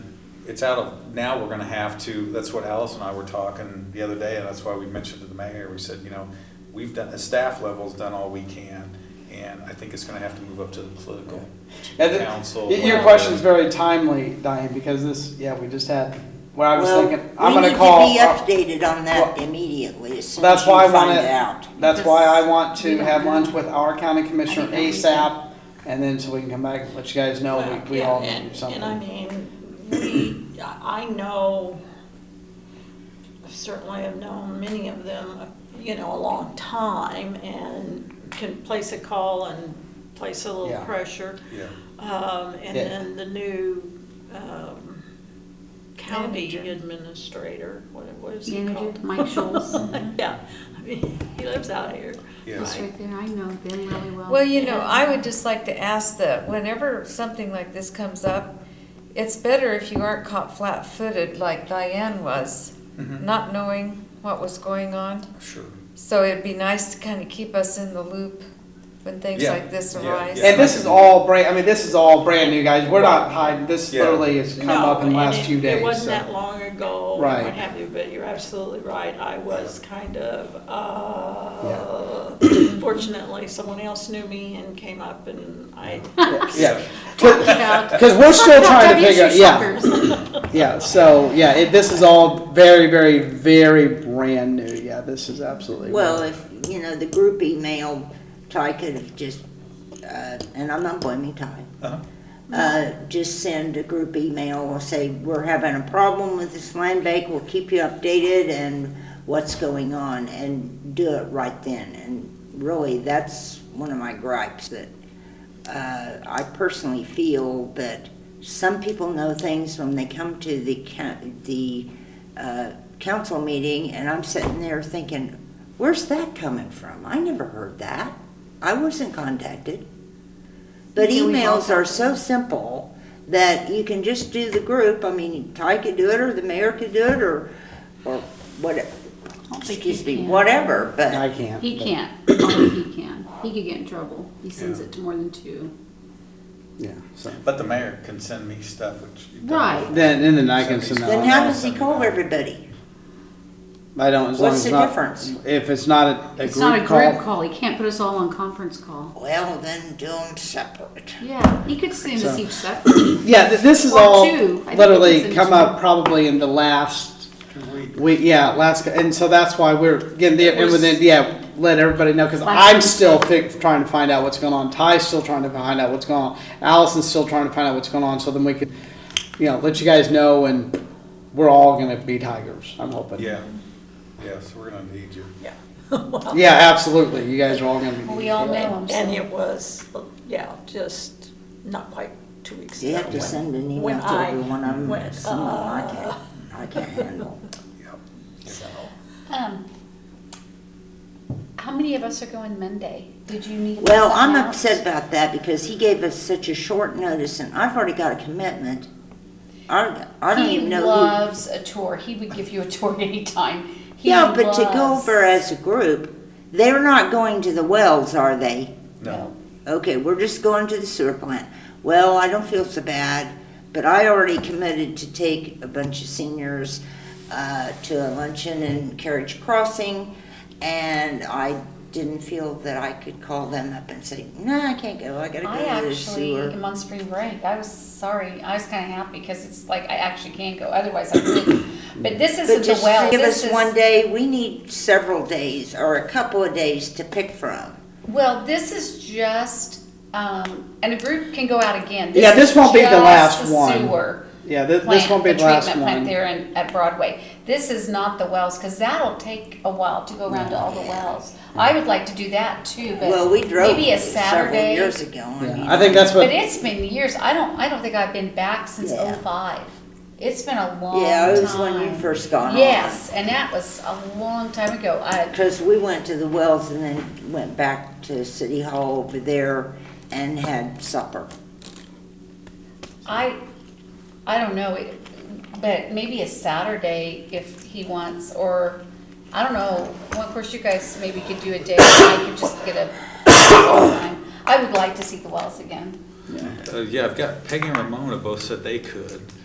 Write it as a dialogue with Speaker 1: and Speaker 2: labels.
Speaker 1: it's out of, now we're gonna have to, that's what Alice and I were talking the other day, and that's why we mentioned to the mayor, we said, you know, we've done, the staff level's done all we can, and I think it's gonna have to move up to the political
Speaker 2: Yeah, the-
Speaker 1: council.
Speaker 2: Y- Your
Speaker 1: whatever.
Speaker 2: question's very timely, Diane, because this, yeah, we just had, what I was
Speaker 3: Well,
Speaker 2: thinking, I'm gonna call. uh,
Speaker 3: We need to be updated on that
Speaker 2: Well,
Speaker 3: immediately, as soon as
Speaker 2: That's
Speaker 3: you
Speaker 2: why I
Speaker 3: find
Speaker 2: want
Speaker 3: out.
Speaker 2: to, that's why I want
Speaker 4: We
Speaker 2: to
Speaker 4: don't
Speaker 2: have
Speaker 4: know.
Speaker 2: lunch with our county commissioner
Speaker 4: I think that we
Speaker 2: ASAP, and then so we can come back and let you guys know
Speaker 4: Well,
Speaker 2: we, we
Speaker 4: yeah,
Speaker 2: all need to
Speaker 4: and-
Speaker 2: do something.
Speaker 4: And I mean, we, I know, certainly I've known many of them, you know, a long time and can place a call and place a little
Speaker 2: Yeah.
Speaker 4: pressure.
Speaker 1: Yeah.
Speaker 4: Um, and
Speaker 2: Yeah.
Speaker 4: then the new, um, county
Speaker 5: Manager.
Speaker 4: administrator, what what is he
Speaker 5: Manager,
Speaker 4: called?
Speaker 5: Mike Schultz.
Speaker 4: Yeah, I mean, he lives out here.
Speaker 1: Yeah.
Speaker 5: Just right there, I know them really well.
Speaker 6: Well, you know, I would just like to ask that whenever something like this comes up, it's better if you aren't caught flat-footed like Diane was,
Speaker 1: Mhm.
Speaker 6: not knowing what was going on.
Speaker 1: Sure.
Speaker 6: So it'd be nice to kind of keep us in the loop when things
Speaker 1: Yeah,
Speaker 6: like this
Speaker 1: yeah,
Speaker 6: arise.
Speaker 1: yeah.
Speaker 2: And this is all brand, I mean, this is all brand new, guys, we're not hiding, this
Speaker 1: Yeah.
Speaker 2: literally has come
Speaker 4: No,
Speaker 2: up in the
Speaker 4: and
Speaker 2: last
Speaker 4: it-
Speaker 2: few days.
Speaker 4: It wasn't
Speaker 2: so-
Speaker 4: that long ago, and
Speaker 2: Right.
Speaker 4: what have you, but you're absolutely right. I was kind of, uh, fortunately, someone else knew me and came up and I,
Speaker 2: Yeah,
Speaker 5: Talk about-
Speaker 2: because we're still
Speaker 5: talk
Speaker 2: trying
Speaker 5: about
Speaker 2: to figure,
Speaker 5: issue
Speaker 2: yeah,
Speaker 5: shoppers.
Speaker 2: yeah, so, yeah, it, this is all very, very, very brand new, yeah, this is absolutely.
Speaker 3: Well, if, you know, the group email, Ty could have just, uh, and I'm not blaming Ty.
Speaker 1: Uh-huh.
Speaker 3: Uh, just send a group email or say, we're having a problem with this land bank, we'll keep you updated and what's going on, and do it right then. And really, that's one of my gripes, that, uh, I personally feel that some people know things when they come to the coun- the, uh, council meeting, and I'm sitting there thinking, Where's that coming from? I never heard that. I wasn't contacted. But
Speaker 5: Until we all
Speaker 3: emails are so simple that you can just do the group. I mean, Ty could do it, or the mayor could do it, or, or what,
Speaker 5: I don't think he
Speaker 3: excuse me,
Speaker 5: can.
Speaker 3: whatever,
Speaker 2: I
Speaker 3: but,
Speaker 2: can't.
Speaker 5: He
Speaker 2: but-
Speaker 5: can't, only he can, he could get in trouble, he sends
Speaker 1: Yeah.
Speaker 5: it to more than two.
Speaker 2: Yeah, so,
Speaker 1: But the mayor can send me stuff, which. you've done
Speaker 5: Right.
Speaker 1: before.
Speaker 2: then, and then I can send that.
Speaker 3: then
Speaker 2: on.
Speaker 3: how does he call everybody?
Speaker 2: I don't, as long
Speaker 3: What's
Speaker 2: as
Speaker 3: the
Speaker 2: not-
Speaker 3: difference?
Speaker 2: If it's not a, a
Speaker 5: It's not a
Speaker 2: group
Speaker 5: group
Speaker 2: call,
Speaker 5: call, he can't put us all on conference call.
Speaker 3: Well, then do them separate.
Speaker 5: Yeah, he could send us
Speaker 2: So-
Speaker 5: each separate.
Speaker 2: yeah, th- this is
Speaker 5: Or
Speaker 2: all
Speaker 5: two. I think it's
Speaker 2: literally
Speaker 5: in
Speaker 2: come
Speaker 5: two.
Speaker 2: up probably in the last week, yeah, last, and so that's why we're getting the, and then, yeah, let everybody know, cause
Speaker 5: Like-
Speaker 2: I'm still fig, trying to find out what's going on, Ty's still trying to find out what's going on, Allison's still trying to find out what's going on, so then we could, you know, let you guys know, and we're all gonna be tigers, I'm hoping.
Speaker 1: Yeah, yeah, so we're gonna need you.
Speaker 4: yeah.
Speaker 2: Yeah, absolutely, you guys are all gonna be.
Speaker 5: We all know him,
Speaker 4: And
Speaker 5: so.
Speaker 4: it was, yeah, just not quite two weeks ago.
Speaker 3: You have to
Speaker 4: when-
Speaker 3: send an email
Speaker 4: when
Speaker 3: to
Speaker 4: I
Speaker 3: everyone. I'm,
Speaker 4: went,
Speaker 3: some of them I can't,
Speaker 4: uh,
Speaker 3: I can't handle.
Speaker 4: so.
Speaker 7: Um, how many of us are going Monday? Did you need?
Speaker 3: Well, I'm
Speaker 7: something
Speaker 3: upset
Speaker 7: else?
Speaker 3: about that because he gave us such a short notice and I've already got a commitment. I, I don't
Speaker 7: He
Speaker 3: even know who.
Speaker 7: loves a tour. He would give you a tour anytime. He
Speaker 3: Yeah, but to go
Speaker 7: loves-
Speaker 3: over as a group, they're not going to the wells, are they?
Speaker 1: No,
Speaker 3: Okay, we're just going to the sewer plant. Well, I don't feel so bad, but I already committed to take a bunch of seniors uh, to a luncheon in Carriage Crossing, and I didn't feel that I could call them up and say, no, I can't go, I gotta
Speaker 7: I
Speaker 3: go to the
Speaker 7: actually
Speaker 3: sewer.
Speaker 7: am on spring break. I was sorry. I was kind of happy because it's like I actually can go. Otherwise, I wouldn't. But this
Speaker 3: But
Speaker 7: isn't the
Speaker 3: just
Speaker 7: well.
Speaker 3: give
Speaker 7: This
Speaker 3: us
Speaker 7: is
Speaker 3: one day, we need several days or a couple of days to pick from.
Speaker 7: well. This is just. Um, and a group can go out again.
Speaker 2: Yeah, this
Speaker 7: is
Speaker 2: won't be the
Speaker 7: just
Speaker 2: last
Speaker 7: the
Speaker 2: one.
Speaker 7: Sewer.
Speaker 2: Yeah, thi- this
Speaker 7: plant,
Speaker 2: won't be the last
Speaker 7: treatment plant
Speaker 2: one.
Speaker 7: there in, at Broadway. This is not the wells, because that'll take a while to go around to all the wells. I would like to do that too, but
Speaker 3: Well, we drove
Speaker 7: maybe a
Speaker 3: several
Speaker 7: Saturday.
Speaker 3: years ago. mean,
Speaker 2: Yeah, I think that's
Speaker 7: But
Speaker 2: what,
Speaker 7: it's been years, I don't, I don't think I've been back since
Speaker 3: Yeah.
Speaker 7: oh five. It's been a long time.
Speaker 3: Yeah, it was when you first got on.
Speaker 7: Yes, and that was a long time ago. I,
Speaker 3: Because we went to the Wells and then went back to City Hall over there and had supper.
Speaker 7: I, I don't know, it- but maybe a Saturday if he wants, or, I don't know. Well, of course, you guys maybe could do a day, I could just get a, I would like to see the Wells again.
Speaker 1: Uh, yeah, I've got Peggy and Ramona both said they could.